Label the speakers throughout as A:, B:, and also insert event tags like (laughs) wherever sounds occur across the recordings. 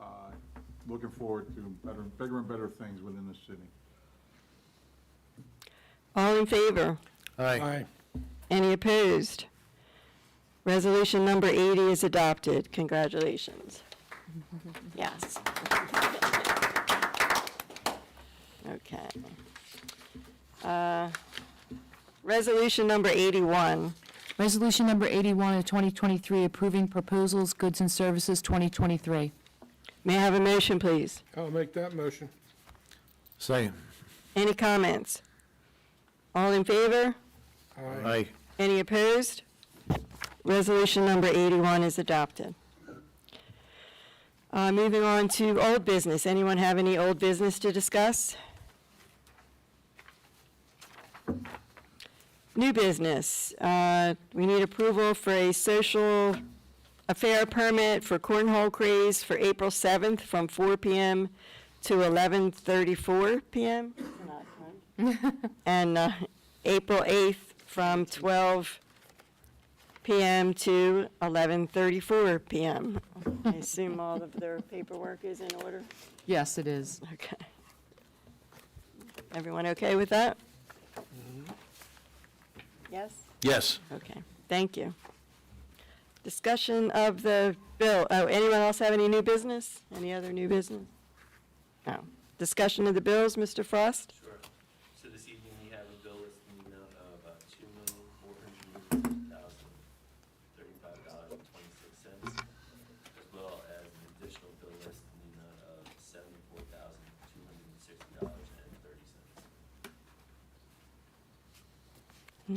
A: Uh, looking forward to better, bigger and better things within the city.
B: All in favor?
C: Aye.
D: Aye.
B: Any opposed? Resolution number 80 is adopted. Congratulations. Yes. Okay. Uh, Resolution number 81.
E: Resolution number 81 of 2023, approving proposals, goods and services 2023.
B: May I have a motion, please?
D: I'll make that motion.
C: Second.
B: Any comments? All in favor?
C: Aye.
B: Any opposed? Resolution number 81 is adopted. Uh, Moving on to old business. Anyone have any old business to discuss? New business. Uh, We need approval for a social affair permit for cornhole craze for April 7th from 4 PM to 11:34 PM. And uh, April 8th from 12 PM to 11:34 PM. I assume all of their paperwork is in order?
E: Yes, it is.
B: Okay. Everyone okay with that? Yes?
C: Yes.
B: Okay, thank you. Discussion of the bill. Oh, anyone else have any new business? Any other new business? No. Discussion of the bills, Mr. Frost?
F: Sure. So this evening, we have a bill listed in the amount of two million, four hundred thousand, thirty-five dollars and twenty-six cents, as well as an additional bill list in the amount of seventy-four thousand, two hundred and sixty dollars and thirty cents.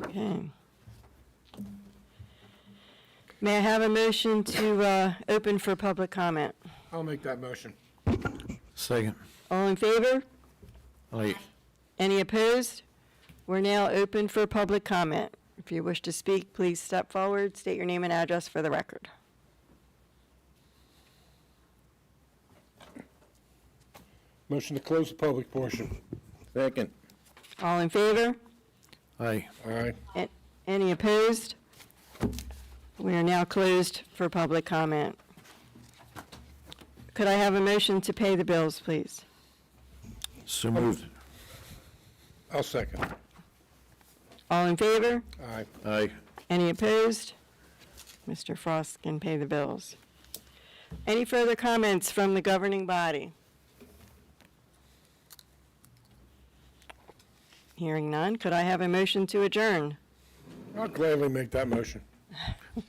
B: Okay. May I have a motion to uh, open for public comment?
D: I'll make that motion.
C: Second.
B: All in favor?
C: Aye.
B: Any opposed? We're now open for public comment. If you wish to speak, please step forward, state your name and address for the record.
D: Motion to close the public portion.
C: Second.
B: All in favor?
C: Aye.
D: Aye.
B: A- Any opposed? We are now closed for public comment. Could I have a motion to pay the bills, please?
C: So moved.
D: I'll second.
B: All in favor?
D: Aye.
C: Aye.
B: Any opposed? Mr. Frost can pay the bills. Any further comments from the governing body? Hearing none, could I have a motion to adjourn?
D: I'll gladly make that motion.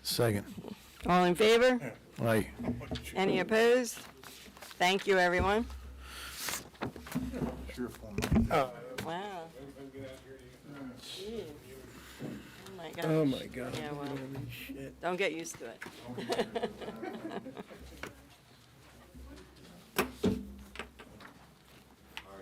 C: Second.
B: All in favor?
C: Aye.
B: Any opposed? Thank you, everyone.
A: Cheerful.
D: Uh,
B: Wow. Jeez. Oh, my gosh.
D: Oh, my God. Oh
B: Yeah, well, don't get used to it. (laughs)